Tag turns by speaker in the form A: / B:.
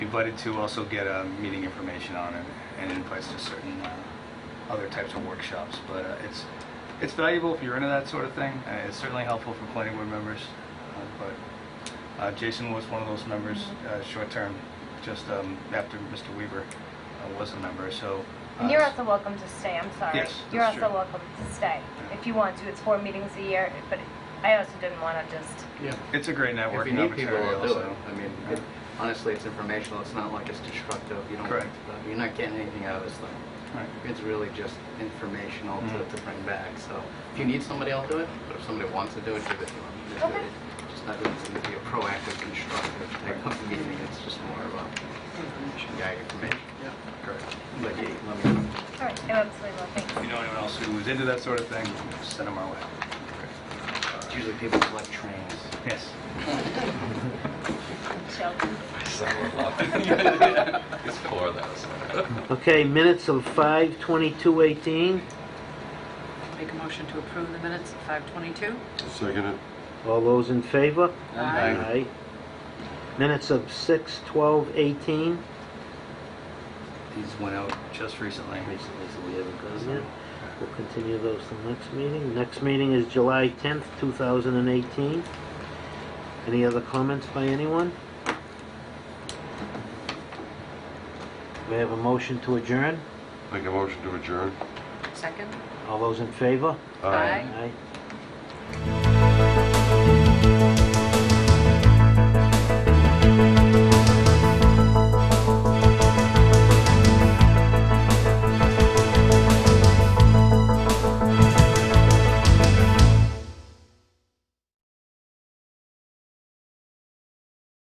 A: invited to also get uh, meeting information on it and invites to certain uh, other types of workshops. But uh, it's, it's valuable if you're into that sort of thing. Uh, It's certainly helpful for planning board members. uh, But uh, Jason was one of those members, uh, short-term, just um, after Mr. Weaver uh, was a member, so. uh,
B: And you're also welcome to stay, I'm sorry.
A: Yes,
B: You're
A: that's
B: also
A: true.
B: welcome to stay, if you want to. It's four meetings a year, but I also didn't want to just,
C: Yeah.
A: It's a great
C: If you
A: networking
C: need people,
A: opportunity
C: they'll do it.
A: also.
C: I mean, it- honestly, it's informational, it's not like it's destructive, you don't,
A: Correct.
C: uh, you're not getting anything out of this thing.
A: Right.
C: It's really just informational to,
A: Mm.
C: to bring back, so if you need somebody, I'll do it, but if somebody wants to do it, give it to them. Just do
B: Okay.
C: it. Just not doing something to be a proactive, constructive type of meeting, it's just more of a, yeah, information.
A: Correct.
C: But yeah, let me know.
B: all right, I'm absolutely, thanks.
A: If you know anyone else who is into that sort of thing, send them our way.
C: It's usually people collect trains.
A: Yes.
B: Sheldon.
D: It's four thousand.
E: Okay, minutes of 5:22:18.
F: Make a motion to approve the minutes at 5:22.
G: Second it.
E: All those in favor?
F: Aye.
E: Minutes of 6:12:18.
A: These went out just recently.
E: Recently, so we haven't gotten it. We'll continue those till next meeting. Next meeting is July 10th, 2018. Any other comments by anyone? We have a motion to adjourn.
G: Make a motion to adjourn.
F: Second?
E: All those in favor?
F: Aye.
E: Aye.